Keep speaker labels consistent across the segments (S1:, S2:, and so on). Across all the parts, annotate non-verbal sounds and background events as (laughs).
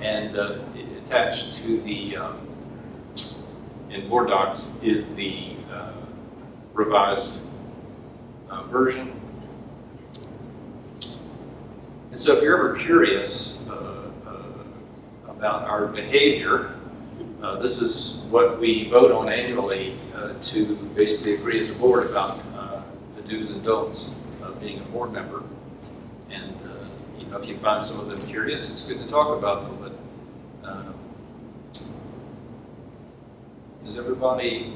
S1: And uh, attached to the, um, in board docs, is the uh, revised uh, version. And so if you're ever curious uh, uh, about our behavior, uh, this is what we vote on annually uh, to basically agree as a board about uh, the do's and don'ts of being a board member. And, uh, you know, if you find some of them curious, it's good to talk about them, but um, does everybody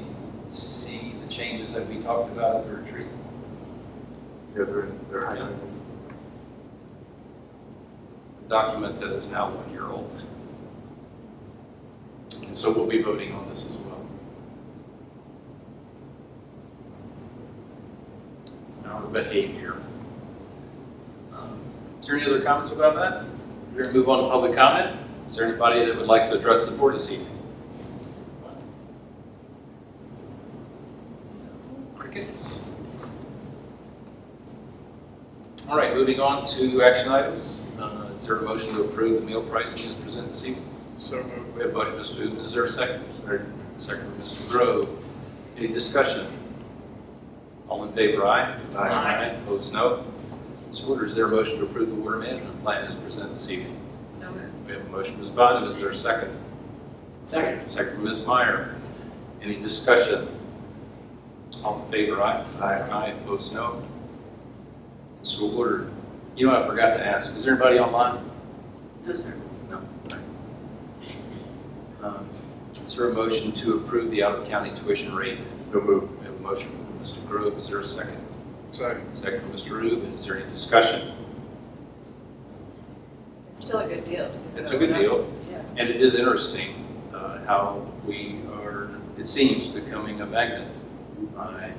S1: see the changes that we talked about at the retreat?
S2: Yeah, they're, they're highlighted.
S1: A document that is now one year old. And so we'll be voting on this as well. Our behavior. Um, Is there any other comments about that? We're going to move on to public comment. Is there anybody that would like to address the board this evening? Crickets? All right, moving on to action items. Uh, Is there a motion to approve the meal pricing as presented this evening?
S3: So moved.
S1: We have a motion, Mr. Uven, is there a second?
S2: They're-
S1: Second, by Mr. Grove. Any discussion? All in favor, aye?
S2: Aye.
S1: Opposed, no. So ordered, is there a motion to approve the water management plan as presented this evening?
S4: So moved.
S1: We have a motion, Ms. Bynum, is there a second?
S4: Second.
S1: Second, by Ms. Meyer. Any discussion? All in favor, aye?
S2: Aye.
S1: Aye, opposed, no. So ordered. You know, what I forgot to ask, is there anybody online?
S4: No, sir.
S1: No. Um, Is there a motion to approve the out-of-county tuition rate?
S2: No move.
S1: We have a motion from Mr. Grove, is there a second?
S3: Second.
S1: Second from Mr. Rubin, is there any discussion?
S4: It's still a good deal.
S1: It's a good deal,
S4: Yeah.
S1: and it is interesting uh, how we are, it seems, becoming a magnet. I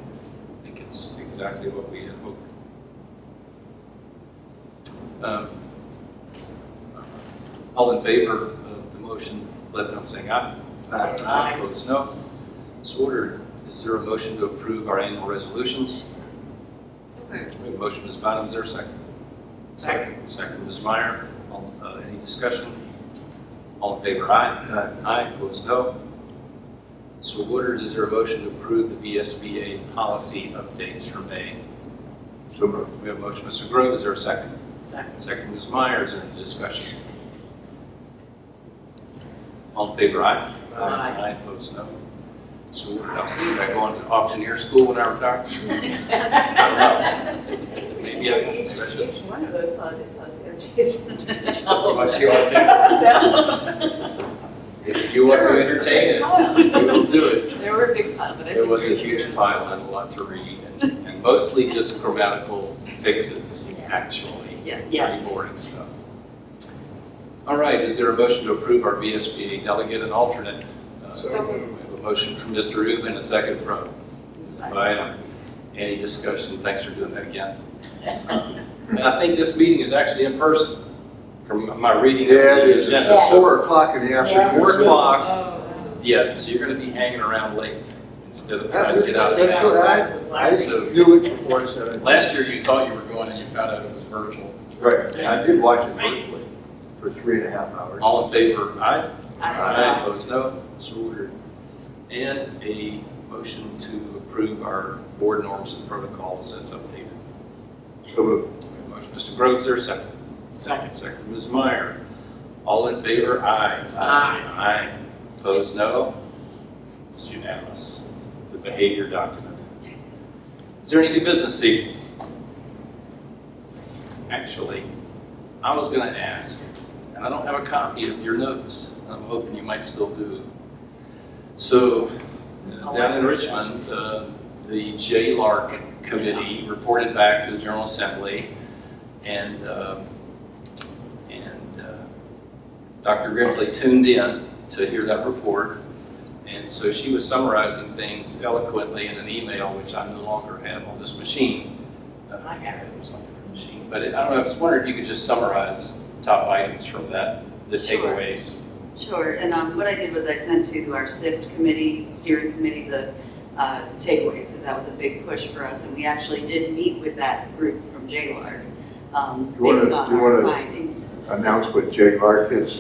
S1: think it's exactly what we had hoped. Um, uh, All in favor of the motion, let it know by saying aye.
S2: Aye.
S4: Aye.
S1: Opposed, no. So ordered. Is there a motion to approve our annual resolutions?
S4: So moved.
S1: We have a motion, Ms. Bynum, is there a second? Second. Second, Ms. Meyer. All, uh, any discussion? All in favor, aye.
S2: Aye.
S1: Aye, opposed, no. So ordered. Is there a motion to approve the VSBA policy updates for May?
S2: So move.
S1: We have a motion, Mr. Grove, is there a second?
S4: Second.
S1: Second, Ms. Meyer, is there any discussion? All in favor, aye?
S2: Aye.
S1: I oppose no. So what did I say, am I going to auctioneer school when I retire? I don't know. Maybe I can,
S5: Each,
S1: I
S5: each one of those positive positives. (laughs)
S1: should. If you want to entertain it, we will do it.
S4: There were big piles, but I think.
S1: There was a
S4: we're
S1: huge
S4: here.
S1: pile and a lot to read, and- and mostly just grammatical fixes, actually.
S4: Yeah,
S1: Pretty
S4: yes.
S1: boring stuff. All right, is there a motion to approve our VSBA delegate and alternate? Uh,
S3: So
S1: We
S3: moved.
S1: have a motion from Mr. Rubin, a second from Ms. Bynum. Any discussion? Thanks for doing that again. And I think this meeting is actually in person, from my reading of
S2: Yeah, it
S1: the
S2: is.
S1: agenda.
S2: It's Four o'clock in the
S1: So,
S2: afternoon.
S1: Four o'clock,
S5: Oh,
S1: yeah, so you're going to be hanging around late instead of trying
S2: That's
S1: to get out of
S2: that's
S1: town.
S2: what I, I
S1: So-
S2: knew it before I said it.
S1: Last year, you thought you were going and you found out it was virtual.
S2: Right, I did watch it virtually for three and a half hours.
S1: All in favor? Aye.
S4: I-
S1: Aye, opposed, no, so ordered. And a motion to approve our board norms and protocols as updated.
S2: So move.
S1: Motion, Mr. Groves, there a second? Second. Second, Ms. Meyer. All in favor, aye. Aye. Aye, opposed, no. It's unanimous, the behavior document. Is there any new business seat? Actually, I was gonna ask, and I don't have a copy of your notes, I'm hoping you might still do. So, uh, down in Richmond, uh, the J-LARC committee reported back to the General Assembly, and, um, and uh, Dr. Grimsley tuned in to hear that report, and so she was summarizing things eloquently in an email, which I no longer have on this machine. Uh, I have it. It was on the machine, but it- I don't know, I was wondering if you could just summarize top items from that, the
S6: Sure.
S1: takeaways.
S6: Sure, and um, what I did was I sent to our SIFT committee, steering committee, the uh, takeaways, because that was a big push for us, and we actually did meet with that group from JLARC um,
S2: You wanna-
S6: based on
S2: you
S6: our
S2: wanna
S6: findings.
S2: Announce uh, what Jay Clark is.